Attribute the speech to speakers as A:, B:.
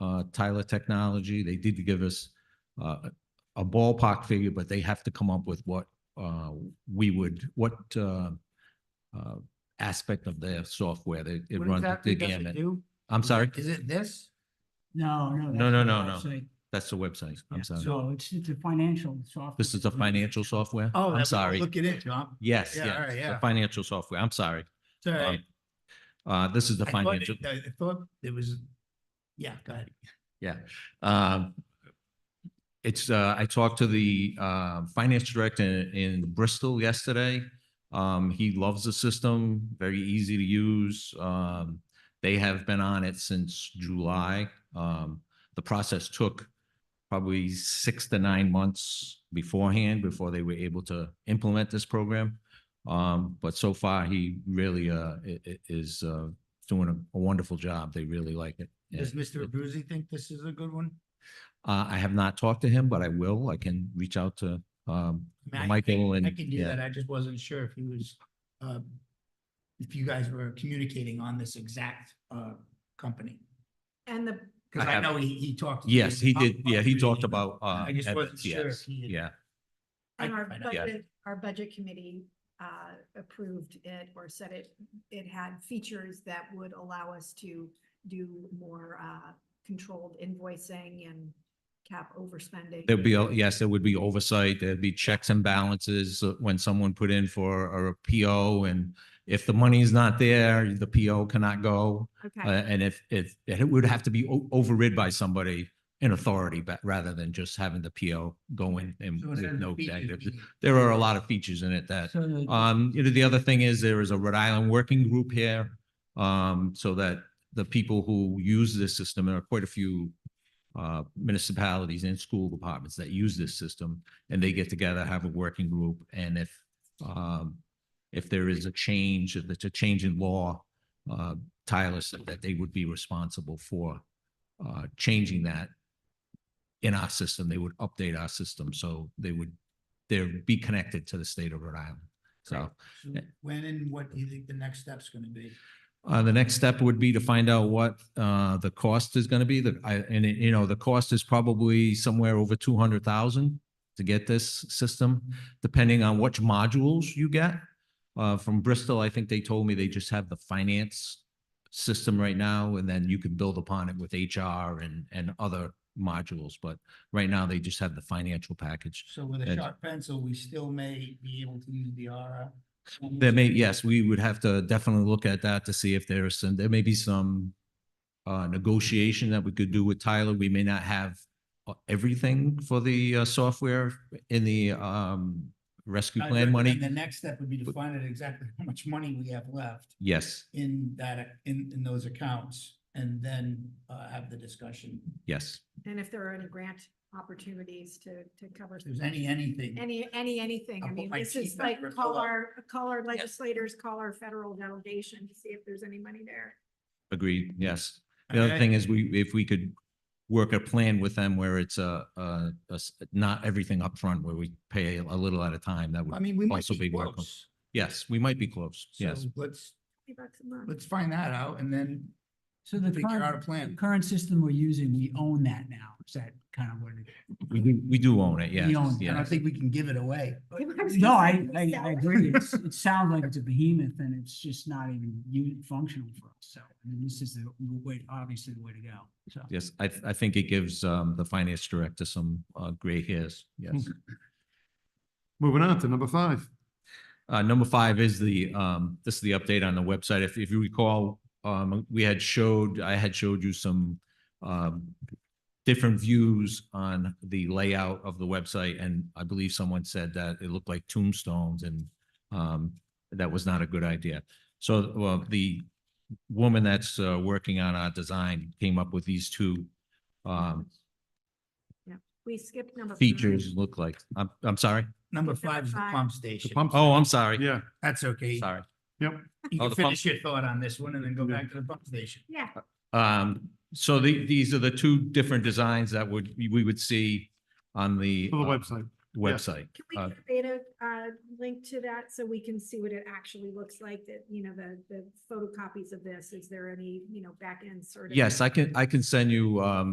A: uh, Tyler Technology. They did give us uh, a ballpark figure, but they have to come up with what uh, we would, what uh, uh, aspect of their software. They- It
B: What
A: runs
B: exactly
A: the
B: does it
A: gamut.
B: do?
A: I'm sorry,
B: Is it this?
C: No,
A: No,
C: no. that's
A: no,
C: the
A: no, no.
C: website.
A: that's the website. I'm sorry.
C: So it's, it's a financial software.
A: This is the financial software?
B: Oh,
A: I'm sorry.
B: Look at it, Tom.
A: Yes,
B: Yeah, all
A: yes,
B: right,
A: the
B: yeah.
A: financial software. I'm sorry.
B: Sorry.
A: Um, Uh, this is the
B: I thought
A: financial,
B: it- I thought it was, yeah, go ahead.
A: yeah. Um, it's, uh, I talked to the, uh, finance director in Bristol yesterday. Um, he loves the system, very easy to use. Um, they have been on it since July. Um, the process took probably six to nine months beforehand before they were able to implement this program. Um, but so far, he really, uh, i- i- is, uh, doing a- a wonderful job. They really like it. Yeah.
B: Does Mr. Abruzzi think this is a good one?
A: Uh, I have not talked to him, but I will. I can reach out to, um,
B: I mean, I
A: Michael
B: can-
A: and.
B: I can do
A: yeah.
B: that. I just wasn't sure if he was, uh, if you guys were communicating on this exact, uh, company.
D: And the,
B: Cause
A: I
B: I
A: have-
B: know he, he talked.
A: Yes, he did. Yeah, he talked
B: Abruzzi.
A: about, uh.
B: I just wasn't
A: Evans,
B: sure
A: yes,
B: if he had-
A: Yeah,
B: I
D: and
B: can
D: our
B: find out.
A: Yeah.
D: budget, our budget committee uh, approved it or said it, it had features that would allow us to do more uh, controlled invoicing and cap overspending.
A: there'd be, a- yes, there would be oversight. There'd be checks and balances uh, when someone put in for a PO and if the money is not there, the PO cannot go. Uh,
D: Okay,
A: and if, if, and it would have to be o- overrid by somebody in authority, but rather than just having the PO go in and
B: So it
A: with
B: had
A: no
B: features
A: negatives.
B: we-
A: There are a lot of features in it that
C: So the-
A: Um, you know, the other thing is there is a Rhode Island working group here. Um, so that the people who use this system, there are quite a few uh, municipalities and school departments that use this system and they get together, have a working group. And if um, if there is a change, if it's a change in law, uh, Tyler said that they would be responsible for uh, changing that in our system. They would update our system. So they would, they'd be connected to the state of Rhode Island. So
B: So When and what do you think the next step's gonna be?
A: uh, the next step would be to find out what, uh, the cost is gonna be, the, I, and, it- you know, the cost is probably somewhere over two hundred thousand to get this system, depending on which modules you get. Uh, from Bristol, I think they told me they just have the finance system right now, and then you can build upon it with HR and, and other modules, but right now they just have the financial package.
B: So with a
A: And-
B: sharp pencil, we still may be able to use the RF.
A: There may, yes, we would have to definitely look at that to see if there is some, there may be some uh, negotiation that we could do with Tyler. We may not have uh, everything for the uh, software in the um, rescue
B: I'd
A: plan
B: recommend
A: money.
B: The next step would be to
A: But-
B: find out exactly how much money we have left
A: Yes,
B: in that, ac- in, in those accounts, and then, uh, have the discussion.
A: yes,
D: and if there are any grant opportunities to, to cover.
B: If there's any, anything,
D: Any, any, anything.
B: I'll
D: I
B: put
D: mean,
B: my
D: this is
B: teeth under
D: like,
B: a
D: call
B: pillow.
D: our, call our legislators, call our federal delegation to see if there's any money there.
A: agreed, yes.
B: I
A: The
B: mean,
A: other
B: I-
A: thing is we, if we could work a plan with them where it's a, a- a s- not everything upfront, where we pay a little at a time, that
B: I
A: would,
B: mean, we might
A: also
B: be
A: be welcome.
B: close.
A: yes, we might be close,
B: So
A: yes.
B: let's,
D: $20 bucks a month.
B: let's find that out and then
C: So the
B: figure out a
C: current, the
B: plan.
C: current system we're using, we own that now. Is that kind of what it is?
A: We do, we do own it, yes,
C: own it.
B: I
A: yes.
B: don't think we can give it away.
C: No, I, I, I agree. It's, it sounds like it's a behemoth and it's just not even unit functional for us. So, I mean, this is the way, obviously the way to go. So.
A: Yes, I, th- I think it gives um, the finance director some uh, gray hairs, yes.
E: Moving on to number five.
A: Uh, Number five is the, um, this is the update on the website. If if you recall, um, we had showed, I had showed you some um, different views on the layout of the website, and I believe someone said that it looked like tombstones, and um, that was not a good idea. So well, the woman that's uh, working on our design came up with these two um,
D: We skipped number. five.
A: features
E: Mm-hmm.
A: look like. I'm, I'm sorry.
B: Number
D: Number
B: five is the
D: five.
B: pump
E: The
B: station.
E: pump,
A: Oh, I'm sorry.
E: yeah,
B: That's okay.
A: Sorry.
B: You
A: Oh, the
B: can
A: pump-
B: finish your thought on this one and then go back to the pump station.
D: Yeah,
A: Um, so the, these are the two different designs that would, we would see on the.
E: for the
A: uh,
E: website.
A: Website.
D: can we
A: Uh,
D: get a beta uh, link to that so we can see what it actually looks like, that, you know, the, the photocopies of this? Is there any, you know, back end sort of?
A: Yes, I can, I can send you, um,